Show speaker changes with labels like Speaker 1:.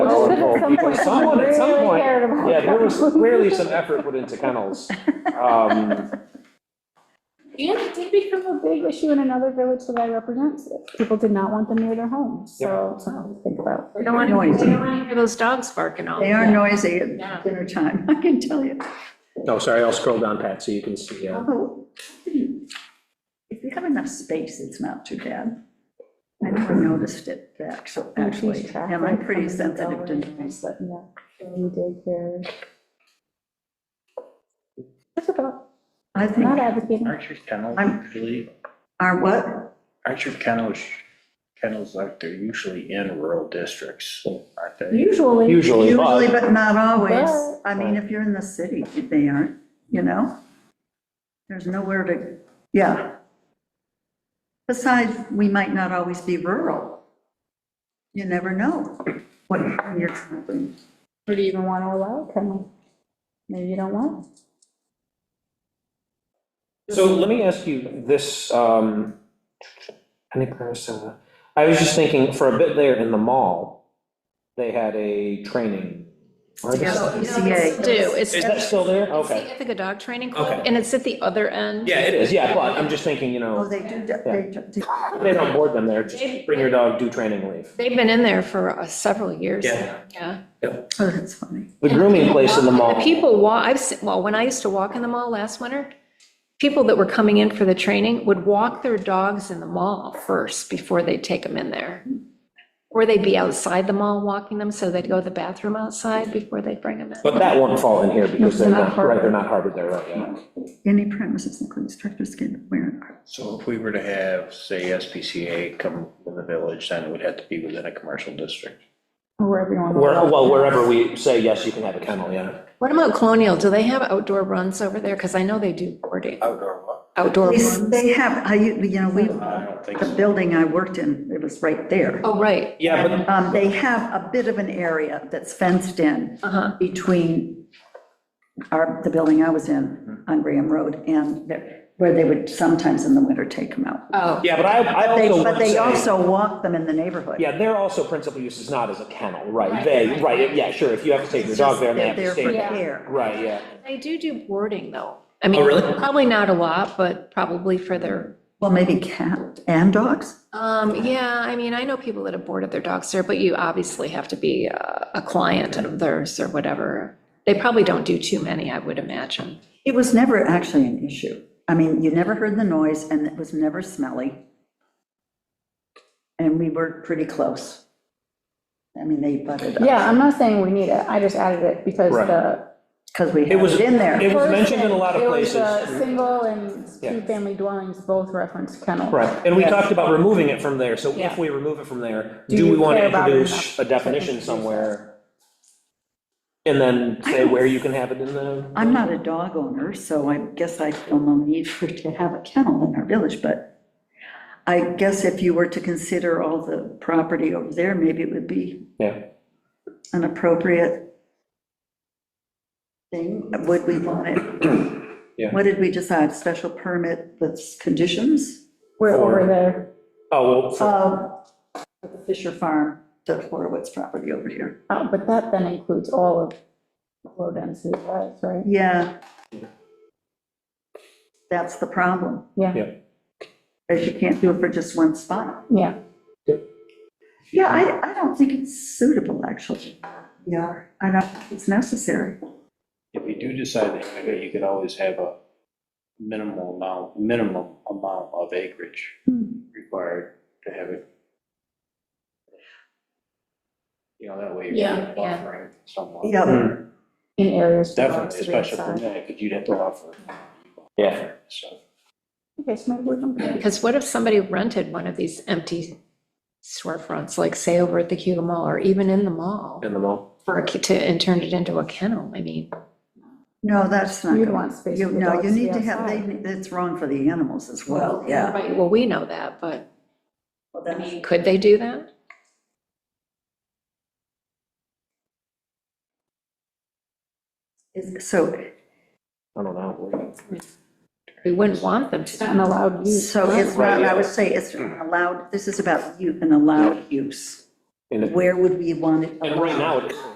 Speaker 1: some
Speaker 2: people,
Speaker 1: point,
Speaker 2: someone at some
Speaker 1: really
Speaker 2: point-
Speaker 1: cared about
Speaker 2: Yeah, there
Speaker 1: them.
Speaker 2: was clearly some effort put into kennels. Um,
Speaker 1: And it did become a big issue in another village that I represent. People did not want them near their homes, so it's something to think about.
Speaker 3: They don't want,
Speaker 4: Noisy.
Speaker 3: they don't want to hear those dogs barking all.
Speaker 4: They are noisy
Speaker 3: Yeah.
Speaker 4: at dinner time, I can tell you.
Speaker 5: No, sorry, I'll scroll down, Pat, so you can see. yeah.
Speaker 4: Although, Oh, if you have enough space, it's not too bad. I never noticed it, actu- actually, and I'm pretty sensitive to noise.
Speaker 1: Yeah, you did care. That's about,
Speaker 4: I think
Speaker 1: not advocating.
Speaker 6: Aren't your kennels
Speaker 4: I'm-
Speaker 6: usually,
Speaker 4: our what,
Speaker 6: aren't your kennels, kennels like they're usually in rural districts, aren't they?
Speaker 1: Usually,
Speaker 2: Usually,
Speaker 4: usually,
Speaker 2: but
Speaker 4: but not always.
Speaker 1: Yeah.
Speaker 4: I mean, if you're in the city, they aren't, you know? There's nowhere to, yeah. Besides, we might not always be rural. You never know what you're traveling.
Speaker 1: or do you even want to allow it? Kind of, maybe you don't want. it.
Speaker 2: so let me ask you this, um, I think there was, uh, I was just thinking, for a bit there in the mall, they had a training. or is-
Speaker 4: Yeah.
Speaker 3: They Do, it's,
Speaker 2: Is that still there?
Speaker 3: it's the
Speaker 2: Okay.
Speaker 3: Ithaca Dog Training Club,
Speaker 2: Okay.
Speaker 3: and it's at the other end.
Speaker 2: Yeah, it is, yeah, but I'm just thinking, you
Speaker 4: Oh,
Speaker 2: know,
Speaker 4: they do, they do.
Speaker 2: they don't board them there, just bring your dog, do training, leave.
Speaker 3: They've been in there for uh, several years.
Speaker 2: Yeah.
Speaker 3: Yeah.
Speaker 4: Oh, that's funny.
Speaker 2: The grooming place in the mall.
Speaker 3: The people walk, I've, se- well, when I used to walk in the mall last winter, people that were coming in for the training would walk their dogs in the mall first before they'd take them in there. Or they'd be outside the mall walking them, so they'd go to the bathroom outside before they'd bring them in.
Speaker 2: But that won't fall in here because they're
Speaker 3: They're not
Speaker 2: not, right,
Speaker 3: harbored.
Speaker 2: they're not harbored there, right, yeah.
Speaker 4: Any premises including structures can wear.
Speaker 6: So if we were to have, say, SPCA come in the village, then it would have to be within a commercial district.
Speaker 1: Or Wherever you want. to
Speaker 2: Where,
Speaker 1: allow it.
Speaker 2: well, wherever we say, yes, you can have a kennel, yeah.
Speaker 3: What about Colonial? Do they have outdoor runs over there? Because I know they do boarding,
Speaker 6: Outdoor what?
Speaker 3: outdoor
Speaker 4: They-
Speaker 3: runs.
Speaker 4: They have, I, you know, we,
Speaker 6: I don't think
Speaker 4: the
Speaker 6: so.
Speaker 4: building I worked in, it was right there.
Speaker 3: Oh, right.
Speaker 2: Yeah, but
Speaker 4: Um, They have a bit of an area that's fenced in
Speaker 3: Uh-huh.
Speaker 4: between our, the building I was in
Speaker 2: Mm-hmm.
Speaker 4: on Graham Road and there, where they would sometimes in the winter take them out.
Speaker 3: Oh,
Speaker 2: Yeah, but I, I
Speaker 4: They-
Speaker 2: also
Speaker 4: But
Speaker 2: would
Speaker 4: they
Speaker 2: say,
Speaker 4: also walk them in the neighborhood.
Speaker 2: yeah, their also principal use is not as a kennel, right?
Speaker 3: Right,
Speaker 2: They,
Speaker 3: right.
Speaker 2: right, yeah, sure, if you have to take your
Speaker 4: It's
Speaker 2: dog
Speaker 4: just
Speaker 2: there, they
Speaker 4: They're
Speaker 2: have to
Speaker 4: there
Speaker 2: stay
Speaker 4: for
Speaker 2: there.
Speaker 4: care.
Speaker 2: Right, yeah.
Speaker 3: they do do boarding, though. I mean,
Speaker 2: Oh, really?
Speaker 3: probably not a lot, but probably for their
Speaker 4: Well, maybe cat and dogs?
Speaker 3: Um, yeah, I mean, I know people that have boarded their dogs there, but you obviously have to be a, a client of theirs or whatever. They probably don't do too many, I would imagine.
Speaker 4: It was never actually an issue. I mean, you never heard the noise and it was never smelly. And we were pretty close. I mean, they butted us.
Speaker 1: Yeah, I'm not saying we need it. I just added it because
Speaker 2: Right.
Speaker 1: the
Speaker 4: Because we
Speaker 2: It
Speaker 4: had
Speaker 2: was-
Speaker 4: it in there.
Speaker 2: It was mentioned in a
Speaker 1: First,
Speaker 2: lot of
Speaker 1: It was
Speaker 2: places.
Speaker 1: uh, single and
Speaker 2: Yeah.
Speaker 1: two-family dwellings both reference kennels.
Speaker 2: Right, and we talked about removing it from there, so
Speaker 1: Yeah.
Speaker 2: if we remove it from there,
Speaker 1: Do
Speaker 2: do
Speaker 1: you
Speaker 2: we want to
Speaker 1: care about it enough
Speaker 2: introduce a
Speaker 1: to
Speaker 2: definition
Speaker 1: introduce
Speaker 2: somewhere? And then say where you can have it in the,
Speaker 4: I'm not a dog owner, so I guess I feel no need for to have a kennel in our village, but I guess if you were to consider all the property over there, maybe it would be
Speaker 2: yeah.
Speaker 4: an appropriate thing. Would we want it?
Speaker 2: Yeah.
Speaker 4: What did we decide? Special permit with conditions?
Speaker 1: We're
Speaker 2: Or-
Speaker 1: over there.
Speaker 2: Oh, well, for-
Speaker 4: Um, the Fisher Farm, the Horowitz property over here.
Speaker 1: Oh, But that then includes all of low-density drives, right?
Speaker 4: Yeah. That's the problem,
Speaker 1: Yeah,
Speaker 2: Yeah.
Speaker 4: is you can't do it for just one spot.
Speaker 1: yeah.
Speaker 4: Yeah, I, I don't think it's suitable, actually. Yeah, I don't think it's necessary.
Speaker 6: If you do decide that you're gonna do it, you could always have a minimal amount, minimum amount of acreage required to have it. You know, that way
Speaker 1: Yeah,
Speaker 6: you're
Speaker 3: yeah.
Speaker 6: buffering somewhat.
Speaker 4: Yeah,
Speaker 2: Hmm,
Speaker 1: In areas. where
Speaker 6: Definitely,
Speaker 1: it's
Speaker 6: especially for
Speaker 1: outside.
Speaker 6: me, because you'd have to offer,
Speaker 2: yeah.
Speaker 6: so.
Speaker 1: Okay, so maybe we're not-
Speaker 3: Because what if somebody rented one of these empty storefronts, like say over at the Cuba Mall or even in the mall
Speaker 2: In the mall.
Speaker 3: for a, ki- to, and turned it into a kennel? I mean,
Speaker 4: no, that's not.
Speaker 1: You'd
Speaker 4: gonna-
Speaker 1: want space
Speaker 4: you-
Speaker 1: for the
Speaker 4: No,
Speaker 1: dogs
Speaker 4: you
Speaker 1: to
Speaker 4: need
Speaker 1: be
Speaker 4: to have, they,
Speaker 1: outside.
Speaker 4: it's wrong for the animals as well, yeah.
Speaker 3: right, well, we know that, but
Speaker 4: Well,
Speaker 3: I
Speaker 4: that's-
Speaker 3: mean, could they do that?
Speaker 4: is- So,
Speaker 2: I don't know.
Speaker 3: We wouldn't want them to.
Speaker 1: An allowed use.
Speaker 4: so it's
Speaker 2: Right,
Speaker 4: not,
Speaker 2: yeah.
Speaker 4: I would say it's allowed, this is about you, an allowed use.
Speaker 2: And it-
Speaker 4: Where would we want it allowed?
Speaker 2: and right now, it is.